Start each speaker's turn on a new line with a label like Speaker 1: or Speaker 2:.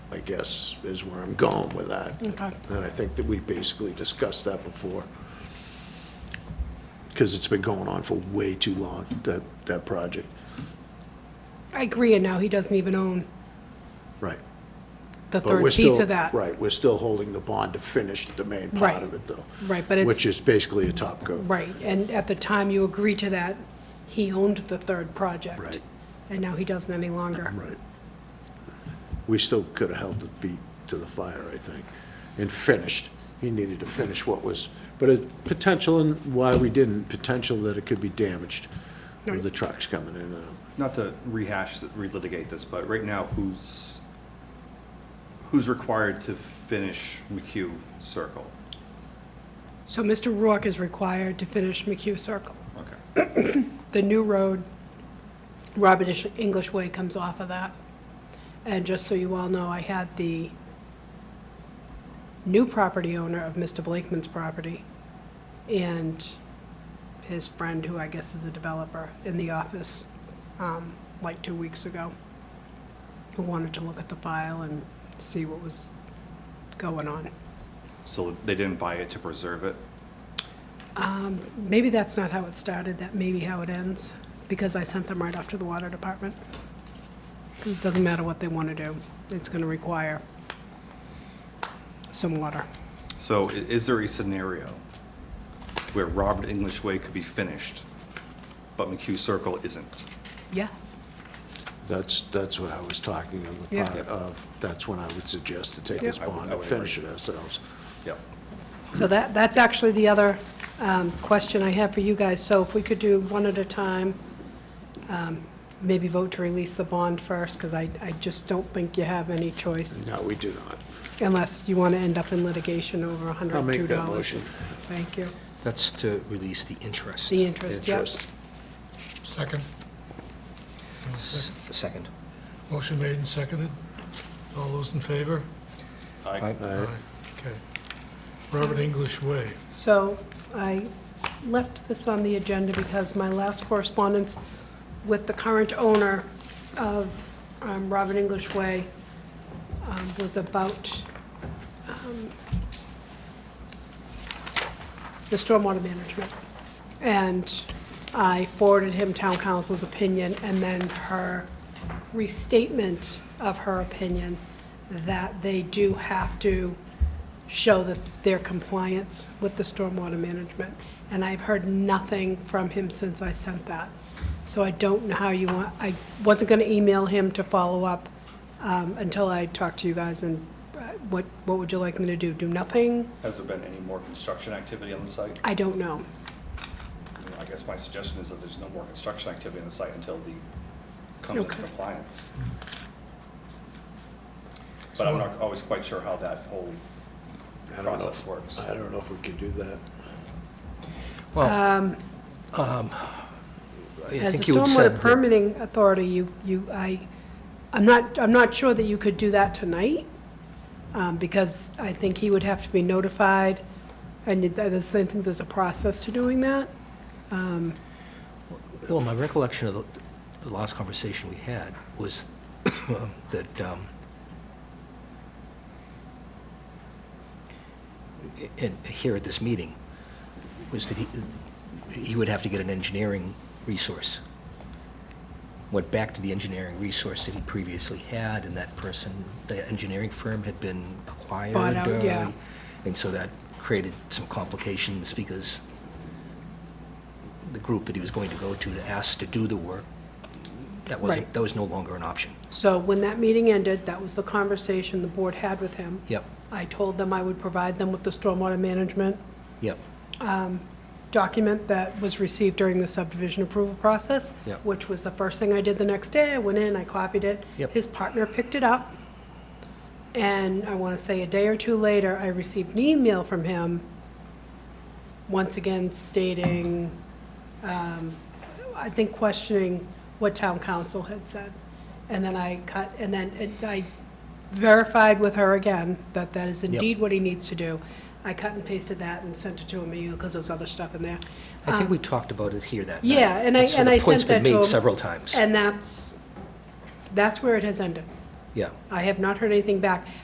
Speaker 1: guess, is where I'm going with that.
Speaker 2: Okay.
Speaker 1: And I think that we basically discussed that before. Because it's been going on for way too long, that, that project.
Speaker 2: I agree, and now he doesn't even own
Speaker 1: Right.
Speaker 2: the
Speaker 1: But
Speaker 2: third
Speaker 1: we're
Speaker 2: piece
Speaker 1: still-
Speaker 2: of that.
Speaker 1: Right, we're still holding the bond to finish the main part
Speaker 2: Right.
Speaker 1: of it, though.
Speaker 2: Right, but it's-
Speaker 1: Which is basically a top coat.
Speaker 2: Right, and at the time you agreed to that, he owned the third project.
Speaker 1: Right.
Speaker 2: And now he doesn't any longer.
Speaker 1: Right. We still could have held the feet to the fire, I think, and finished. He needed to finish what was, but it, potential and why we didn't, potential that it could be damaged with the trucks coming in and out.
Speaker 3: Not to rehash, th- relitigate this, but right now, who's, who's required to finish McHugh Circle?
Speaker 2: So Mr. Rourke is required to finish McHugh Circle.
Speaker 3: Okay.
Speaker 2: The new road, Robert Ish- English Way comes off of that. And just so you all know, I had the new property owner of Mr. Blakeman's property and his friend, who I guess is a developer, in the office, um, like two weeks ago, who wanted to look at the file and see what was going on.
Speaker 3: So they didn't buy it to preserve it?
Speaker 2: Maybe that's not how it started, that may be how it ends, because I sent them right off to the water department. 'Cause It doesn't matter what they want to do, it's going to require some water.
Speaker 3: So i- is there a scenario where Robert English Way could be finished, but McHugh Circle isn't?
Speaker 2: Yes,
Speaker 1: That's, that's what I was talking on the
Speaker 2: Yeah.
Speaker 1: part of, that's when I would suggest to take
Speaker 2: Yeah.
Speaker 1: this
Speaker 3: I would-
Speaker 1: bond
Speaker 3: I
Speaker 1: and
Speaker 3: would
Speaker 1: finish it ourselves.
Speaker 3: Yep.
Speaker 2: so that, that's actually the other um, question I have for you guys. So if we could do one at a time, um, maybe vote to release the bond first, because I, I just don't think you have any choice,
Speaker 1: No, we do not.
Speaker 2: unless you want to end up in litigation over $102.
Speaker 1: I'll make that motion.
Speaker 2: Thank you.
Speaker 4: That's to release the interest.
Speaker 2: The interest, yep.
Speaker 1: Interest.
Speaker 5: Second.
Speaker 4: S- Second.
Speaker 5: Motion made and seconded. All those in favor?
Speaker 3: I-
Speaker 1: Aye.
Speaker 5: Okay. Robert English Way.
Speaker 2: So I left this on the agenda because my last correspondence with the current owner of um, Robert English Way um, was about um, the stormwater management. And I forwarded him town council's opinion and then her restatement of her opinion that they do have to show that their compliance with the stormwater management. And I've heard nothing from him since I sent that. So I don't know how you want, I wasn't going to email him to follow up um, until I talked to you guys and uh, what, what would you like me to do? Do nothing?
Speaker 3: Has there been any more construction activity on the site?
Speaker 2: I don't know.
Speaker 3: You know, I guess my suggestion is that there's no more construction activity on the site until the comes into
Speaker 2: Okay.
Speaker 3: compliance. But I'm not always quite sure how that whole
Speaker 1: I don't know,
Speaker 3: process works.
Speaker 1: if- I don't know if we can do that.
Speaker 4: Well, um, I
Speaker 2: As
Speaker 4: think
Speaker 2: a
Speaker 4: you had said
Speaker 2: stormwater
Speaker 4: that-
Speaker 2: permitting authority, you, you, I, I'm not, I'm not sure that you could do that tonight, um, because I think he would have to be notified, and you- I just think there's a process to doing that.
Speaker 4: Bill, my recollection of the- the last conversation we had was that um, and here at this meeting, was that he he would have to get an engineering resource. Went back to the engineering resource that he previously had, and that person, the engineering firm had been acquired.
Speaker 2: Bought out,
Speaker 4: uh,
Speaker 2: yeah.
Speaker 4: And so that created some complications because the group that he was going to go to to ask to do the work, that
Speaker 2: Right.
Speaker 4: wasn't, that was no longer an option.
Speaker 2: So when that meeting ended, that was the conversation the board had with him.
Speaker 4: Yep,
Speaker 2: I told them I would provide them with the stormwater management
Speaker 4: yep,
Speaker 2: document that was received during the subdivision approval process,
Speaker 4: Yep.
Speaker 2: which was the first thing I did the next day. I went in, I copied it.
Speaker 4: Yep.
Speaker 2: His partner picked it up. And I want to say a day or two later, I received an email from him, once again stating, um, I think questioning what town council had said. And then I cut, and then it- I verified with her again that that is indeed what he needs to do. I cut and pasted that and sent it to him, because there was other stuff in there.
Speaker 4: I think we talked about it here that night.
Speaker 2: Um, Yeah, and I,
Speaker 4: So
Speaker 2: and I
Speaker 4: The point's
Speaker 2: sent
Speaker 4: been
Speaker 2: that to him.
Speaker 4: made several times,
Speaker 2: And that's, that's where it has ended.
Speaker 4: yeah.
Speaker 2: I have not heard anything back.